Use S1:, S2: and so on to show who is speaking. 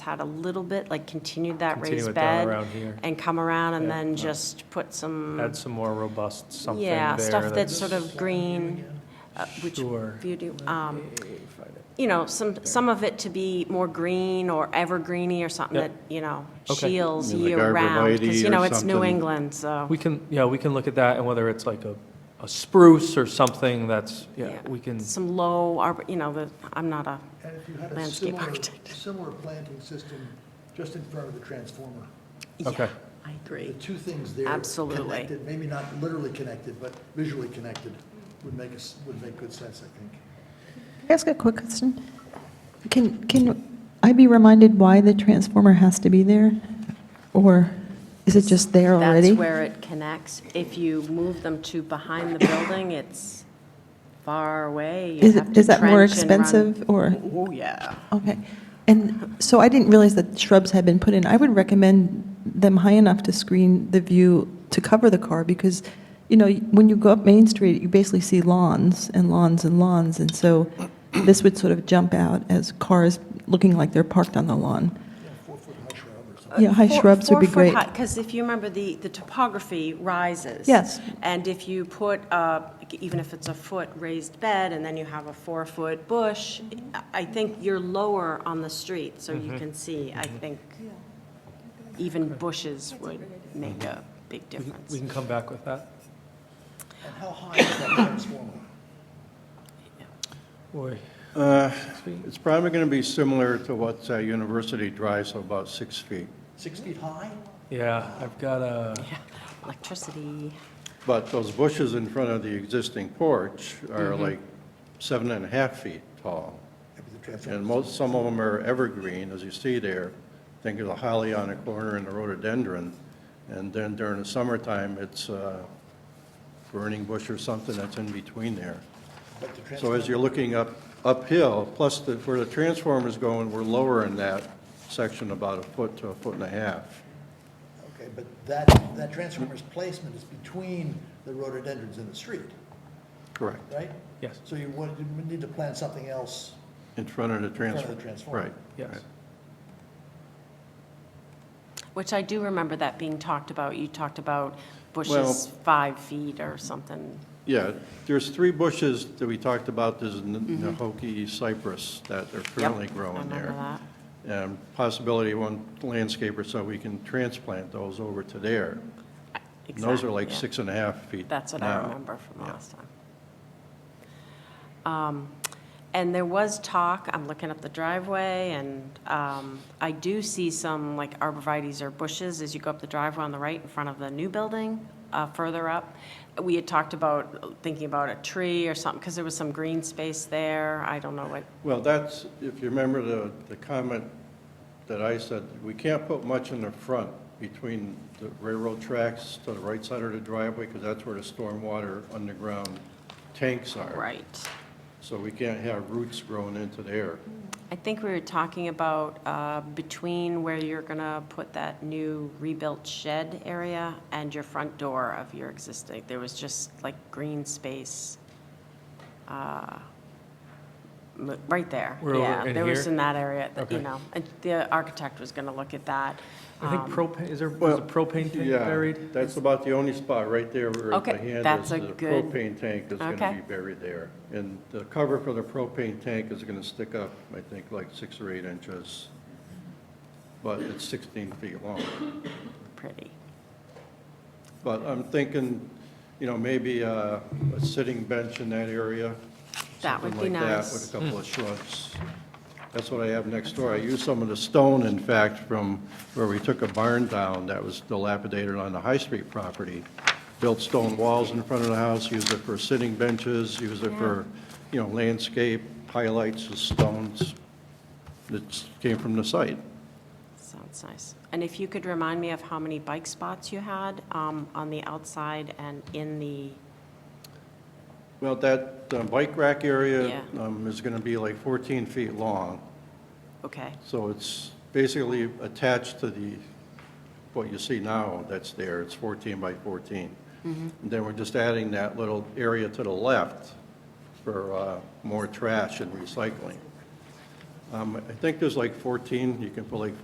S1: had a little bit, like continued that
S2: Continue
S1: raised
S2: it down
S1: bed
S2: around here.
S1: and come around and
S2: Yeah.
S1: then just put some,
S2: Add some more robust something there.
S1: yeah, stuff that's sort of green, uh, which
S2: Sure.
S1: view do, um, you know, some, some of it to be more green or evergreeny or something
S2: Yeah.
S1: that, you know,
S2: Okay.
S1: shields
S3: Like
S1: year round. Because,
S3: arborvitae
S1: you
S3: or
S1: know, it's New
S3: something.
S1: England, so.
S2: We can, yeah, we can look at that and whether it's like a, a spruce or something that's, yeah, we can,
S1: Some low, arbor- you know, the, I'm not a,
S4: And if you had a
S1: Landscape
S4: similar,
S1: architect.
S4: similar planting system just in front of the transformer,
S2: okay.
S1: I
S4: the
S1: agree.
S4: two things there.
S1: Absolutely.
S4: Connected, maybe not literally connected, but visually connected would make us, would make good sense, I think.
S5: Can I ask a quick question? Can, can I be reminded why the transformer has to be there? Or is it just there already?
S1: That's where it connects. If you move them to behind the building, it's far away. You
S5: Is
S1: have
S5: it,
S1: to
S5: is that more
S1: trench and run-
S5: expensive or,
S1: Oh, yeah.
S5: okay. And so I didn't realize that shrubs had been put in. I would recommend them high enough to screen the view to cover the car because, you know, when you go up Main Street, you basically see lawns and lawns and lawns. And so this would sort of jump out as cars looking like they're parked on the lawn. Yeah, high shrubs would be great.
S1: Because if you remember, the, the topography rises.
S5: Yes.
S1: And if you put, uh, even if it's a foot raised bed, and then you have a four-foot bush, I think you're lower on the street, so
S3: Mm-hmm.
S1: you can see. I think even bushes would make a big
S2: We can-
S1: difference.
S2: We can come back with that.
S4: And how high is that transformer?
S2: Boy,
S3: Uh, It's probably going to be similar to what uh, University Drive, so about six feet.
S4: Six feet high?
S2: yeah, I've got a,
S1: Yeah, Electricity.
S3: But those bushes in front of the existing porch are like seven and a half feet tall.
S4: Maybe the transformer.
S3: And most, some of them are evergreen, as you see there. Think of the holly on a corner and the rhododendron. And then during the summertime, it's a burning bush or something that's in between there.
S4: But the
S3: So
S4: transformer,
S3: as you're looking up, uphill, plus the, where the transformer's going, we're lower in that section about a foot to a foot and a half.
S4: okay, but that, that transformer's placement is between the rhododendrons and the street,
S3: Correct.
S4: right?
S2: Yes.
S4: So you would, you would need to plant something else.
S3: In front of the
S4: front of the
S3: transformer.
S4: transformer.
S3: Right.
S2: yes.
S3: right.
S1: Which I do remember that being talked about. You talked about
S3: Well-
S1: bushes five feet or something.
S3: Yeah, there's three bushes that we talked about, there's N- Nahoki cypress that are currently
S1: Mm-hmm. Yep,
S3: growing
S1: I remember
S3: there.
S1: that.
S3: And possibility of one landscaper, so we can transplant those over to there. And those
S1: Exactly,
S3: are like
S1: yeah.
S3: six and a half feet
S1: That's what I
S3: now.
S1: remember from
S3: Yeah.
S1: last time. Um, And there was talk, I'm looking up the driveway, and um, I do see some like arborvitae's or bushes as you go up the driveway on the right in front of the new building, uh, further up. We had talked about thinking about a tree or something, because there was some green space there. I don't know what,
S3: Well, that's, if you remember the, the comment that I said, we can't put much in the front between the railroad tracks to the right side of the driveway, because that's where the stormwater underground tanks are.
S1: right.
S3: So we can't have roots growing into there.
S1: I think we were talking about uh, between where you're going to put that new rebuilt shed area and your front door of your existing, there was just like green space uh, m- right there.
S2: We're over
S1: Yeah,
S2: in
S1: there was
S2: here?
S1: in that area, that, you
S2: Okay.
S1: know, and the architect was going to look at that.
S2: I think
S1: Um,
S2: propane, is there, was a propane tank
S3: Yeah,
S2: buried?
S3: That's about the only spot right there where the
S1: Okay,
S3: hand is.
S1: that's a
S3: the
S1: good-
S3: Propane tank is
S1: Okay.
S3: gonna be buried there. And the cover for the propane tank is gonna stick up, I think, like six or eight inches, but it's 16 feet long.
S1: Pretty.
S3: But I'm thinking, you know, maybe uh, a sitting bench in that area.
S1: That would
S3: something
S1: be
S3: like that,
S1: nice.
S3: With a couple of shrubs. That's what I have next door. I used some of the stone, in fact, from where we took a barn down that was dilapidated on the High Street property. Built stone walls in front of the house, used it for sitting benches, used it for, you know, landscape, highlights of stones. It came from the site.
S1: Sounds nice. And if you could remind me of how many bike spots you had um, on the outside and in the,
S3: Well, that uh, bike rack area
S1: Yeah.
S3: um, is going to be like 14 feet long.
S1: okay,
S3: So it's basically attached to the, what you see now that's there, it's 14 by 14. And then we're just adding that little area to the left for uh, more trash and recycling. Um, I think there's like 14, you can put like